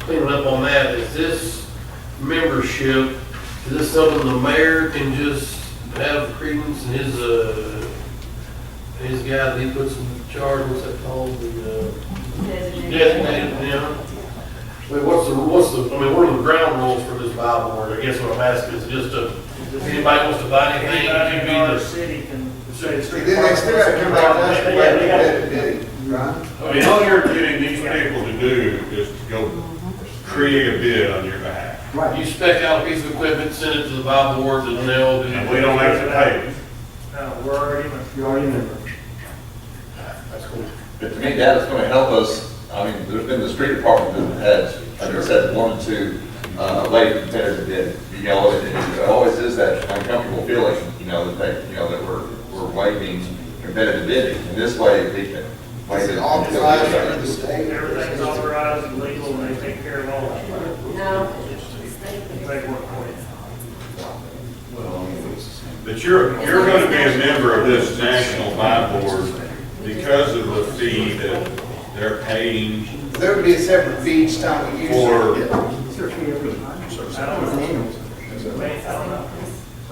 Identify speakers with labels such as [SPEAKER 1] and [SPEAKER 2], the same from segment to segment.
[SPEAKER 1] cleaning up on that, is this membership, is this something the mayor can just have credence in his, uh, his guy that he puts in charge, what's that called, the, uh, designated, yeah? I mean, what's the, what's the, I mean, what are the ground rules for this Bible board, I guess what I'm asking is just a, if anybody wants to buy anything,
[SPEAKER 2] Anybody
[SPEAKER 1] it
[SPEAKER 2] in
[SPEAKER 1] could
[SPEAKER 2] our
[SPEAKER 1] be
[SPEAKER 2] city can say it's.
[SPEAKER 3] Then they still have to come back and ask for what they had to do, right?
[SPEAKER 4] I mean, all you're getting these people to do is to go create a bid on your behalf.
[SPEAKER 1] the, you spec out a piece of equipment, send it to the Bible board, and they'll do.
[SPEAKER 4] And we don't have to pay.
[SPEAKER 2] No, we're already,
[SPEAKER 3] You already know.
[SPEAKER 1] That's cool.
[SPEAKER 5] But to me, that is gonna help us, I mean, there's been the street department that has, like I said, one or two, uh, late competitors that, you know, it, it always is that uncomfortable feeling, you know, that they, you know, that we're, we're waiving competitive bidding, and this way we can.
[SPEAKER 3] Is it authorized by the state?
[SPEAKER 2] everything's authorized and legal and they take care of all that. They work for you.
[SPEAKER 4] But you're, you're gonna be a member of this national buy board because of the fee that they're paying
[SPEAKER 3] There would be a separate fee each time we use
[SPEAKER 4] for,
[SPEAKER 3] it.
[SPEAKER 2] I don't know. They- I don't know.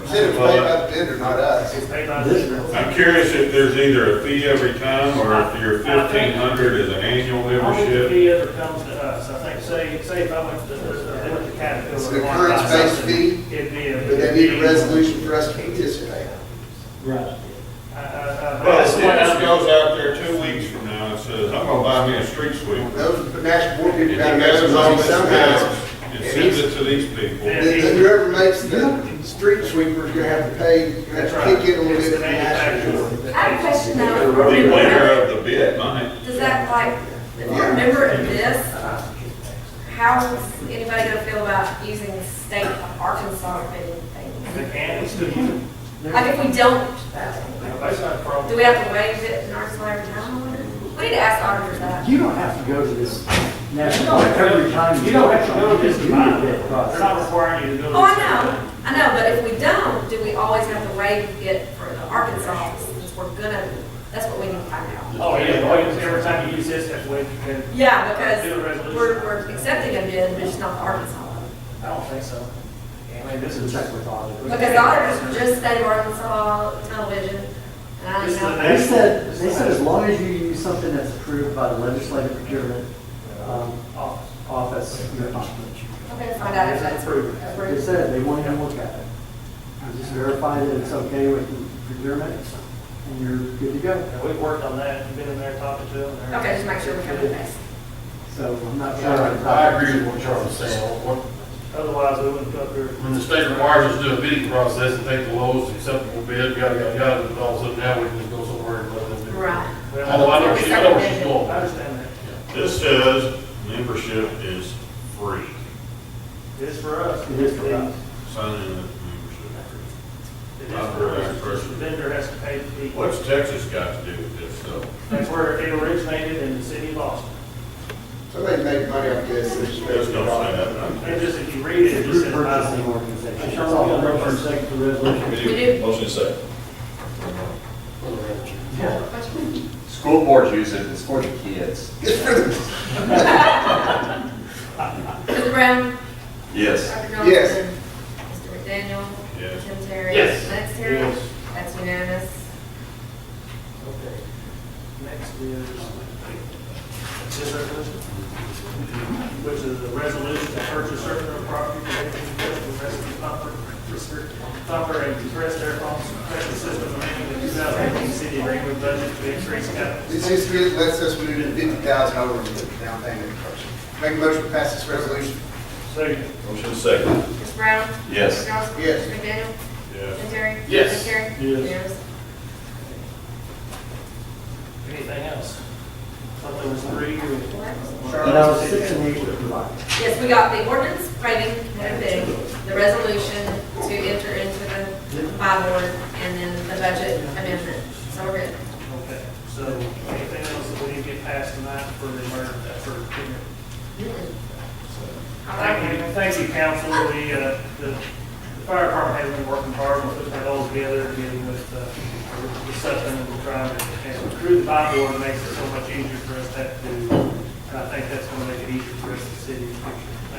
[SPEAKER 3] Instead of paying up bid or not us.
[SPEAKER 2] It's paid by the.
[SPEAKER 4] I'm curious if there's either a fee every time, or if your fifteen hundred is an annual
[SPEAKER 2] Only the
[SPEAKER 4] membership.
[SPEAKER 2] fee ever comes to us. I think, say, say if I went to, I went to Caterpillar.
[SPEAKER 3] It's an
[SPEAKER 2] and wanted to buy
[SPEAKER 3] occurrence-based
[SPEAKER 2] something,
[SPEAKER 3] fee,
[SPEAKER 2] It'd be a.
[SPEAKER 3] But they need a resolution for us to participate.
[SPEAKER 2] I, I, I.
[SPEAKER 4] Well, this just goes out there two weeks from now and says, I'm gonna buy me a street sweeper.
[SPEAKER 3] Those national board
[SPEAKER 4] And
[SPEAKER 3] people
[SPEAKER 4] he
[SPEAKER 3] got to make some
[SPEAKER 4] gathers all
[SPEAKER 3] money
[SPEAKER 4] this
[SPEAKER 3] somehow.
[SPEAKER 4] gas and sends it to these people.
[SPEAKER 2] Yeah.
[SPEAKER 3] Then then whoever makes the street sweepers, you're gonna have to pay, you're gonna
[SPEAKER 2] That's
[SPEAKER 3] have
[SPEAKER 2] right.
[SPEAKER 3] to kick in a little
[SPEAKER 2] It's
[SPEAKER 3] bit
[SPEAKER 2] the
[SPEAKER 3] of the national. board.
[SPEAKER 2] manufacturer.
[SPEAKER 6] I have a question though.
[SPEAKER 4] The winner of the bid might.
[SPEAKER 6] Does that like, if you're a member of this, how is anybody gonna feel about using the state of Arkansas bidding
[SPEAKER 2] They
[SPEAKER 6] thing?
[SPEAKER 2] can, it's good.
[SPEAKER 6] Like if we don't,
[SPEAKER 2] That's not a problem.
[SPEAKER 6] do we have to waive it in Arkansas every time? We need to ask auditors that.
[SPEAKER 7] You don't have to go to this national, every time.
[SPEAKER 2] You don't have to go to this
[SPEAKER 7] You need
[SPEAKER 2] body.
[SPEAKER 7] that
[SPEAKER 2] They're
[SPEAKER 7] process.
[SPEAKER 2] not requiring you to go to this.
[SPEAKER 6] Oh, I know, I know, but if we don't, do we always have to waive it for the Arkansas since we're gonna, that's what we need to find out.
[SPEAKER 2] Oh, yeah, well, you- every time you use this, that's way you can,
[SPEAKER 6] Yeah,
[SPEAKER 2] Do a
[SPEAKER 6] because
[SPEAKER 2] resolution.
[SPEAKER 6] we're, we're accepting a bid, but it's not the Arkansas one.
[SPEAKER 2] I don't think so. I mean, this
[SPEAKER 7] This is
[SPEAKER 2] is.
[SPEAKER 7] check with auditors.
[SPEAKER 6] Because the auditors just state of Arkansas television, and I
[SPEAKER 2] This is the
[SPEAKER 6] know,
[SPEAKER 7] They said, they said as long as you use something that's approved by the legislative procurement, um,
[SPEAKER 2] Office.
[SPEAKER 7] office, you're fine.
[SPEAKER 6] I'm gonna find out if that's approved.
[SPEAKER 7] They said they want you to look at it. You just verify that it's okay with the procurement, and you're good to go.
[SPEAKER 2] And we've worked on that, been in there talking to them. and-
[SPEAKER 6] Okay, just make sure we cover the base.
[SPEAKER 7] So I'm not sure.
[SPEAKER 1] I agree with what Charlie's saying, What-
[SPEAKER 2] Otherwise, we wouldn't go through.
[SPEAKER 1] when the state requires us to do a bidding process and take the lowest acceptable bid, yada, yada, yada, and all of a sudden now we can just go somewhere and let them do it.
[SPEAKER 6] Right.
[SPEAKER 2] We don't-
[SPEAKER 1] Although I know she, I know where she's
[SPEAKER 2] I
[SPEAKER 1] going.
[SPEAKER 2] understand that.
[SPEAKER 4] This says membership is free.
[SPEAKER 2] It's for us.
[SPEAKER 7] It is for us.
[SPEAKER 4] Sign in the membership.
[SPEAKER 2] It is for us. The vendor has to pay the fee.
[SPEAKER 4] What's Texas got to do with this though?
[SPEAKER 2] That's where it originated in the city of Austin.
[SPEAKER 3] Somebody made money off this. it's just-
[SPEAKER 4] There's no sign up.
[SPEAKER 2] And just, if you read it, it just
[SPEAKER 7] Group
[SPEAKER 2] says.
[SPEAKER 7] purchasing
[SPEAKER 2] buy
[SPEAKER 7] organization.
[SPEAKER 2] one.
[SPEAKER 7] That's all.
[SPEAKER 2] second to
[SPEAKER 6] We do.
[SPEAKER 8] Motion second.
[SPEAKER 5] School boards use it, it's for the kids.
[SPEAKER 3] It's for the
[SPEAKER 6] Mr. Brown?
[SPEAKER 5] Yes.
[SPEAKER 6] Dr. Johnson?
[SPEAKER 3] Yes.
[SPEAKER 6] Mr. McDaniel?
[SPEAKER 4] Yes.
[SPEAKER 6] Tim Terry?
[SPEAKER 1] Yes.
[SPEAKER 6] Lance Terry?
[SPEAKER 2] Yes.
[SPEAKER 6] That's unanimous.
[SPEAKER 2] Okay. Next is, this resolution? Which is a resolution to purchase certain real property related to the rescue pumper, pumper and compressed air pumps, pressure system, amending the two thousand eighteen city regular budget to increase capital.
[SPEAKER 3] This just really lets us move in fifty thousand over to the down payment. Make a motion to pass this resolution.
[SPEAKER 2] Second.
[SPEAKER 8] Motion second.
[SPEAKER 6] Mr. Brown?
[SPEAKER 5] Yes.
[SPEAKER 6] Dr. Johnson?
[SPEAKER 3] Yes.
[SPEAKER 6] Mr. McDaniel?
[SPEAKER 4] Yeah.
[SPEAKER 6] Tim Terry?
[SPEAKER 1] Yes.
[SPEAKER 6] Lance Terry?
[SPEAKER 2] Yes.
[SPEAKER 6] Unanimous.
[SPEAKER 2] Anything else? Thought there was three.
[SPEAKER 7] And I was six and eight were combined.
[SPEAKER 6] Yes, we got the ordinance waiving no bidding, the resolution to enter into the by board, and then the budget amendment. So we're good.
[SPEAKER 2] Okay, so anything else that we need to get passed tonight for the emergency, for the
[SPEAKER 6] All
[SPEAKER 2] Thank you,
[SPEAKER 6] right.
[SPEAKER 2] thank you, council. The, uh, the the fire department has been working hard on putting that all together, getting with, uh, with the Sutton and trying to, and through the by board makes it so much easier for us to have to do. And I think that's gonna make it easier for rest of the city.